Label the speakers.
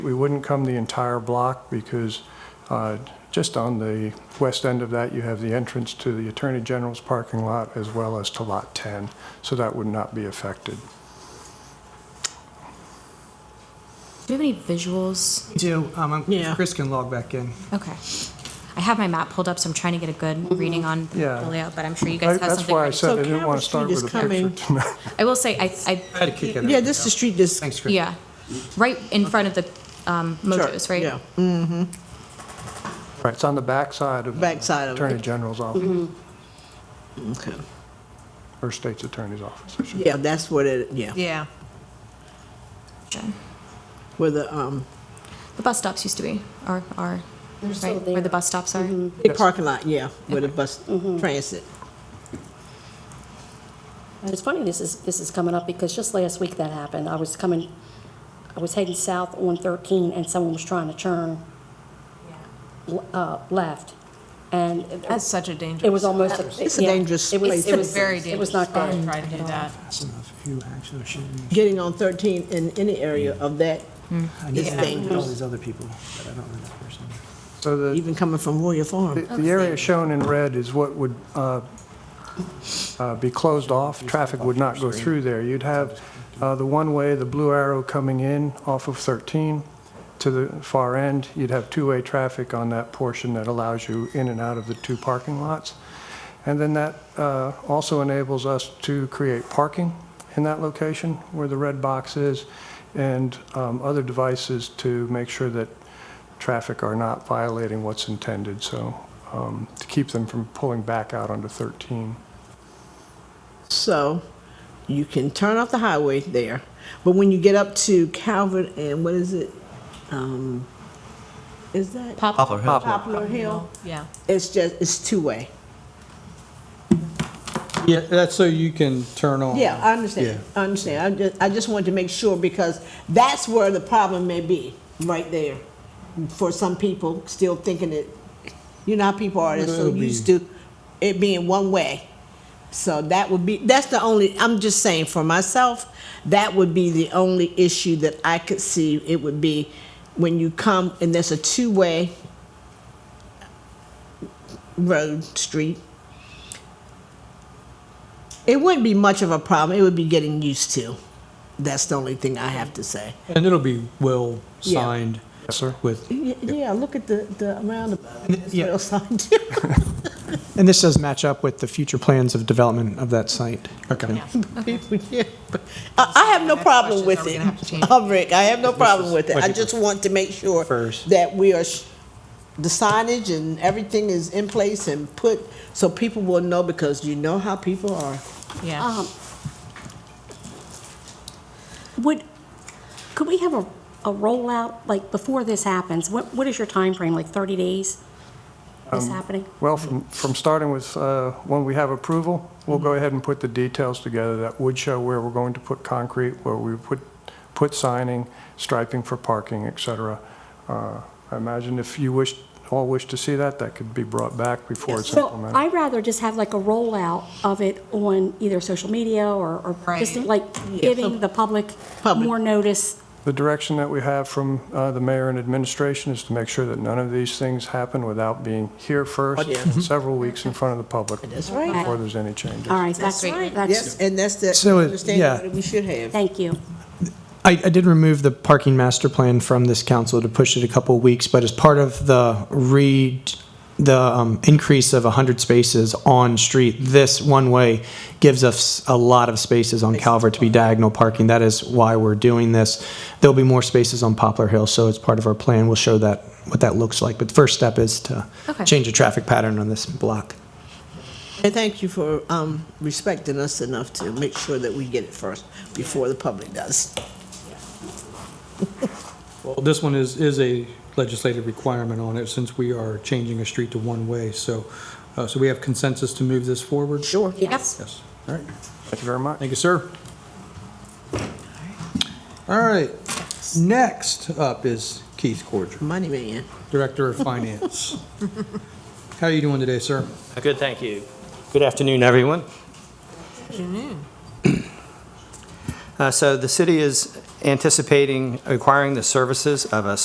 Speaker 1: We wouldn't come the entire block because uh, just on the west end of that, you have the entrance to the Attorney General's parking lot as well as to Lot 10, so that would not be affected.
Speaker 2: Do you have any visuals?
Speaker 3: do. Um, I'm-
Speaker 4: Yeah.
Speaker 3: Chris can log back in.
Speaker 2: Okay. I have my map pulled up, so I'm trying to get a good reading on
Speaker 1: Mm-hmm. Yeah.
Speaker 2: the layout, but I'm sure you
Speaker 1: I-
Speaker 2: guys have
Speaker 1: That's
Speaker 2: something
Speaker 1: why I
Speaker 2: ready.
Speaker 1: said I
Speaker 4: So
Speaker 1: didn't want
Speaker 4: Calvert
Speaker 1: to start
Speaker 4: Street
Speaker 1: with
Speaker 4: is
Speaker 1: a picture
Speaker 4: coming.
Speaker 1: tonight.
Speaker 2: I will say, I, I,
Speaker 3: I had to kick it.
Speaker 4: Yeah, this is the street is,
Speaker 3: Thanks, Chris.
Speaker 2: yeah, right in front of the um, mojos, right?
Speaker 4: yeah,
Speaker 1: Right, it's on the backside of
Speaker 4: Backside of it.
Speaker 1: Attorney General's office,
Speaker 4: Mm-hmm. okay.
Speaker 1: or State's Attorney's office, I should
Speaker 4: Yeah, that's what it, yeah,
Speaker 5: Yeah,
Speaker 4: where the, um,
Speaker 2: The bus stops used to be, or are,
Speaker 6: still
Speaker 2: right, where the
Speaker 6: there. Mm-hmm.
Speaker 2: bus stops are.
Speaker 4: big parking lot, yeah, where the bus transit.
Speaker 6: And It's funny this is, this is coming up because just last week that happened. I was coming, I was heading south on 13 and someone was trying to turn l- uh, left. And it-
Speaker 5: that's such a
Speaker 6: it
Speaker 5: dangerous.
Speaker 6: was almost.
Speaker 4: It's a
Speaker 6: yeah,
Speaker 4: dangerous
Speaker 6: it was-
Speaker 4: place.
Speaker 6: It was
Speaker 5: Very dangerous.
Speaker 6: It was not
Speaker 5: spot to
Speaker 6: good.
Speaker 5: Try to do that.
Speaker 3: That's enough. Who actually shooting?
Speaker 4: Getting on 13 in any area of that,
Speaker 3: I
Speaker 4: need to Yeah. know
Speaker 3: all these other people, but I don't know that person.
Speaker 1: say. So the
Speaker 4: even coming from Royal
Speaker 1: The-
Speaker 4: Farm.
Speaker 1: The area shown in red is what would uh, uh, be closed off. Traffic would not go through there. You'd have uh, the one-way, the blue arrow coming in off of 13 to the far end. You'd have two-way traffic on that portion that allows you in and out of the two parking lots. And then that uh, also enables us to create parking in that location where the red box is and um, other devices to make sure that traffic are not violating what's intended, so um, to keep them from pulling back out onto 13.
Speaker 4: So you can turn off the highway there, but when you get up to Calvert and what is it? Um, Is that?
Speaker 2: Pop,
Speaker 4: Poplar Hill.
Speaker 5: Yeah.
Speaker 4: It's just, it's two-way.
Speaker 7: Yeah, that's so you can turn on.
Speaker 4: Yeah, I understand, I understand. I just, I just wanted to make sure because that's where the problem may be, right there. For some people, still thinking it, you know how people are, they're so
Speaker 7: It'll be-
Speaker 4: used to it being one way. So that would be, that's the only, I'm just saying for myself, that would be the only issue that I could see. It would be when you come and there's a two-way road, street, it wouldn't be much of a problem. It would be getting used to. That's the only thing I have to say.
Speaker 7: And it'll be well
Speaker 4: Yeah.
Speaker 7: signed
Speaker 1: Yes, sir?
Speaker 7: with,
Speaker 4: Y- Yeah, look at the, the roundabout. It's
Speaker 3: yeah.
Speaker 4: real sign too.
Speaker 8: And this does match up with the future plans of development of that site. Okay.
Speaker 4: People, yeah. I, I have no
Speaker 5: Next
Speaker 4: problem
Speaker 5: questions
Speaker 4: with
Speaker 5: are we
Speaker 4: it,
Speaker 5: gonna have to change?
Speaker 4: Uh, Rick. I have no problem with it.
Speaker 7: what
Speaker 4: I
Speaker 7: you
Speaker 4: just want to make sure
Speaker 7: prefers.
Speaker 4: that we are, sh- the signage and everything is in place and put, so people will know because you know how people are.
Speaker 5: Yeah.
Speaker 6: Um, Would, could we have a, a rollout, like before this happens? What, what is your time frame? like 30 days? This happening?
Speaker 1: Well, from, from starting with, uh, when we have approval, we'll go ahead and put the details together that would show where we're going to put concrete, where we put, put signing, striping for parking, et cetera. Uh, I imagine if you wish, all wish to see that, that could be brought back before it's
Speaker 6: So
Speaker 1: implemented.
Speaker 6: I'd rather just have like a rollout of it on either social media or, or just
Speaker 5: Right.
Speaker 6: like giving the public
Speaker 4: Public.
Speaker 6: more notice.
Speaker 1: The direction that we have from uh, the mayor and administration is to make sure that none of these things happen without being here first,
Speaker 4: yeah.
Speaker 6: Mm-hmm.
Speaker 1: and several weeks in front of the public.
Speaker 4: right.
Speaker 1: Before there's any changes.
Speaker 6: All right, that's,
Speaker 5: right.
Speaker 6: that's,
Speaker 4: Yes, and that's the
Speaker 8: So it-
Speaker 4: understanding
Speaker 8: yeah.
Speaker 4: that we should have.
Speaker 6: thank you.
Speaker 8: I, I did remove the parking master plan from this council to push it a couple of weeks, but as part of the read, the um, increase of 100 spaces on street, this one-way gives us a lot of spaces on Calvert to be diagonal parking. That is why we're doing this. There'll be more spaces on Poplar Hill, so it's part of our plan. We'll show that, what that looks like. But the first step is to
Speaker 2: Okay.
Speaker 8: change the traffic pattern on this block.
Speaker 4: And thank you for um, respecting us enough to make sure that we get it first before the public does.
Speaker 7: well, this one is, is a legislative requirement on it since we are changing a street to one-way. So, uh, so we have consensus to move this forward?
Speaker 4: Sure.
Speaker 6: Yes.
Speaker 7: Yes. All right.
Speaker 1: Thank you very much.
Speaker 7: Thank you, sir. All right. Next up is Keith Corger,
Speaker 4: Money man.
Speaker 7: Director of Finance. How are you doing today, sir?
Speaker 9: Good, thank you. Good afternoon, everyone.
Speaker 5: Afternoon.
Speaker 9: Uh, So the city is anticipating acquiring the services of a